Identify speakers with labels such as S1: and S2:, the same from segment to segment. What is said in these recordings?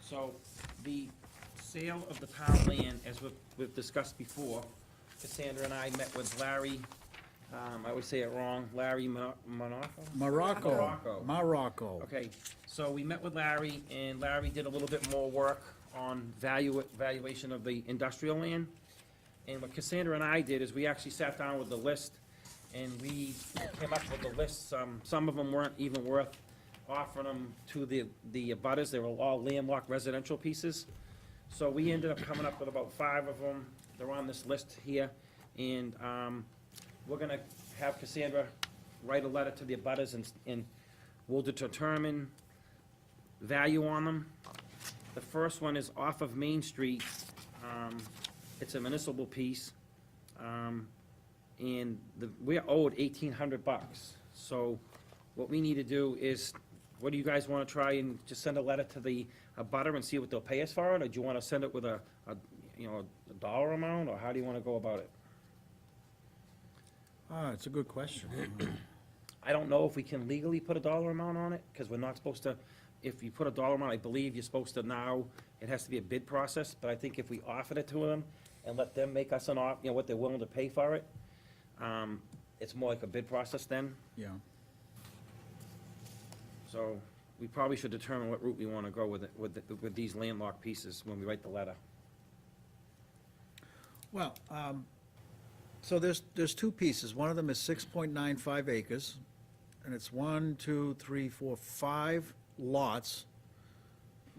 S1: So the sale of the pound land, as we've- we've discussed before, Cassandra and I met with Larry, um, I would say it wrong, Larry Mono- Monaco?
S2: Morocco,
S1: Morocco.
S2: Morocco.
S1: Okay, so we met with Larry, and Larry did a little bit more work on value, valuation of the industrial land. And what Cassandra and I did is we actually sat down with the list, and we came up with the list, some, some of them weren't even worth offering them to the, the abutters, they were all landlocked residential pieces. So we ended up coming up with about five of them, they're on this list here, and, um, we're gonna have Cassandra write a letter to the abutters and, and will determine value on them. The first one is off of Main Street. Um, It's a municipal piece. Um, And the, we're owed eighteen hundred bucks. So what we need to do is, what do you guys wanna try and just send a letter to the abutter and see what they'll pay us for it? Or do you wanna send it with a, a, you know, a dollar amount, or how do you wanna go about it?
S2: Ah, it's a good question.
S1: I don't know if we can legally put a dollar amount on it, because we're not supposed to, if you put a dollar amount, I believe you're supposed to now, it has to be a bid process, but I think if we offered it to them and let them make us an off, you know, what they're willing to pay for it, um, it's more like a bid process then,
S2: Yeah,
S1: so we probably should determine what route we wanna go with it, with, the- with these landlocked pieces when we write the letter.
S2: well, um, so there's, there's two pieces. One of them is six point nine five acres, and it's one, two, three, four, five lots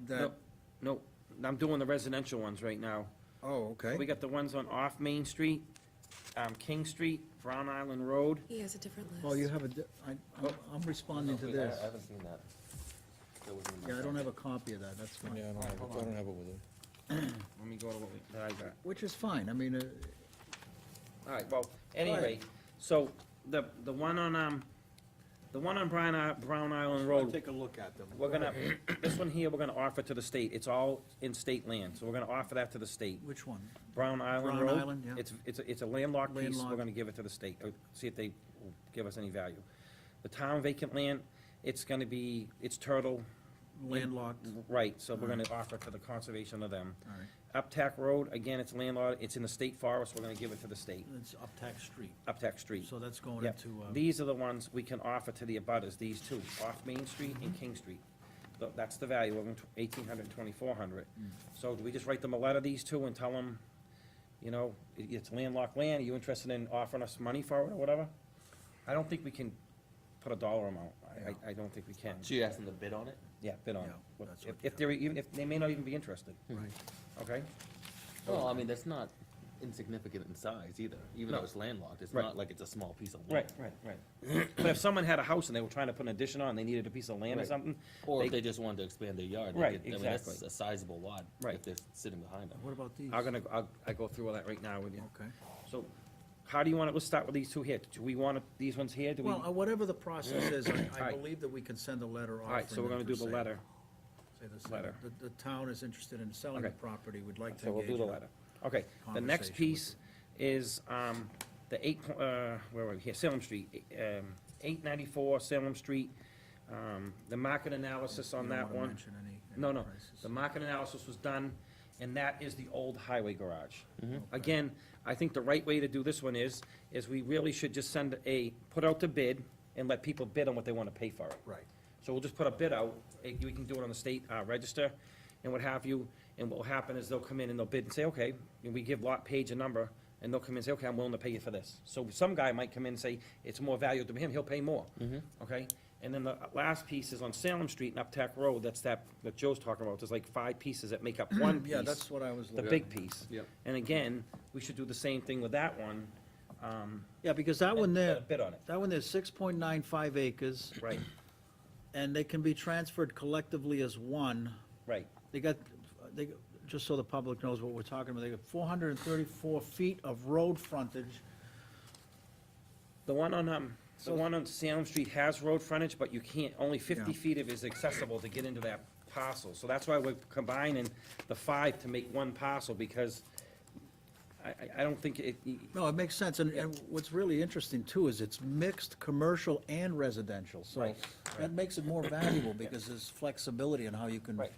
S2: that,
S1: Nope, Nope, I'm doing the residential ones right now.
S2: oh,
S1: We
S2: okay.
S1: got the ones on off Main Street, um, King Street, Brown Island Road,
S3: He has a different list.
S2: Well, Oh, you have a, di- I,
S1: Oh.
S2: I'm- I'm responding to
S4: Wait, I-
S2: this.
S4: I haven't seen that. That was in my
S2: Yeah, I
S4: phone.
S2: don't have a copy of that, that's fine.
S5: Yeah, I don't have, it. I don't have it with him.
S1: let me go to what we, that I got.
S2: Which is fine, I mean, uh,
S1: All right, well, anyway, so the, the one on, um, the one on Brown, I- Brown Island Road,
S2: take a look at them.
S1: we're gonna, this one here, we're gonna offer to the state. It's all in state land, so we're gonna offer that to the state.
S2: Which one?
S1: Brown Island
S2: Brown
S1: Road.
S2: Island, yeah.
S1: It's, it's, a- it's a landlocked piece, we're
S2: Landlocked.
S1: gonna give it to the state, uh, see if they will give us any value. The town vacant land, it's gonna be, it's turtle,
S2: Landlocked,
S1: right, so we're gonna offer to the conservation of them.
S2: all right,
S1: Uptack Road, again, it's landlocked, it's in the state forest, we're gonna give it to the state,
S2: it's Uptack Street,
S1: Uptack Street.
S2: so that's going
S1: Yep.
S2: into, uh,
S1: These are the ones we can offer to the abutters, these two, off Main Street and King Street. Tho- That's the value of them, eighteen hundred, twenty-four hundred.
S2: Mm.
S1: So do we just write them a letter, these two, and tell them, you know, i- it's landlocked land, are you interested in offering us money for it or whatever? I don't think we can put a dollar amount, I- I, I don't think we can.
S4: So you asked them to bid on it?
S1: Yeah, bid on
S2: Yeah,
S1: it.
S2: that's
S1: If-
S2: what-
S1: If they're, even, if, they may not even be interested,
S2: right.
S1: okay?
S4: Well, I mean, that's not insignificant in size either, even
S1: No.
S4: though it's landlocked, it's
S1: Right.
S4: not like it's a small piece of land.
S1: Right, right, right. But if someone had a house and they were trying to put an addition on, they needed a piece of land or
S4: Right.
S1: something,
S4: Or if
S1: They-
S4: they just wanted to expand their yard. they
S1: Right,
S4: could- I mean, that's
S1: exactly.
S4: A sizable lot,
S1: Right.
S4: if they're sitting behind them.
S2: What about these?
S1: I'm gonna, I'll, I go through all that right now with you.
S2: Okay.
S1: So, how do you want it, let's start with these two here, do we want it- these ones here, do we?
S2: Well, uh,
S1: All
S2: whatever the process is, I- I
S1: Alright.
S2: believe that we can send a letter offering.
S1: right, so we're
S2: them
S1: gonna do the
S2: for sale.
S1: letter,
S2: Say the sale.
S1: letter.
S2: The, the town is interested in selling the
S1: Okay.
S2: property, would like to
S1: so we'll do
S2: engage
S1: the
S2: in-
S1: letter. Okay, the next
S2: Conversation with
S1: piece is, um, the eight, po- uh, where were we, here, Salem Street, um, eight ninety-four Salem Street. Um, the market analysis on
S2: You don't
S1: that
S2: wanna
S1: one.
S2: mention any- any
S1: No, no,
S2: prices.
S1: the market analysis was done, and that is the old highway garage. Again, I think the right way to do this one is, is we really should just send a, put out the bid and let people bid on what they wanna pay for it.
S2: Right.
S1: So we'll just put a bid out, eh, we can do it on the state uh, register and what have you, and what'll happen is they'll come in and they'll bid and say, okay, and we give lot page a number, and they'll come in and say, okay, I'm willing to pay you for this. So some guy might come in and say, it's more valuable to him, he'll pay more,
S2: Mm-hmm.
S1: okay? And then the last piece is on Salem Street and Uptack Road, that's that, that Joe's talking about, there's like five pieces that make up one piece.
S2: Yeah, that's what I was
S1: The
S2: looking.
S1: big piece.
S4: Yep.
S1: And again, we should do the same thing with that one. um,
S2: Yeah, because that one
S1: and
S2: there,
S1: let it Bid on it,
S2: that one there's six point nine five acres,
S1: right,
S2: and they can be transferred collectively as one.
S1: right,
S2: They got, they, got- just so the public knows what we're talking about, they got four hundred and thirty-four feet of road frontage.
S1: The one on, um, the
S2: So-
S1: one on Salem Street has road frontage, but you can't, only fifty
S2: Yeah.
S1: feet of it is accessible to get into that parcel. So that's why we're combining the five to make one parcel, because I, I, I don't think it,
S2: No, it makes sense, and, and what's really interesting too is it's mixed commercial and residential, so
S1: Right,
S2: that makes it more valuable because there's flexibility in how you can
S1: Right.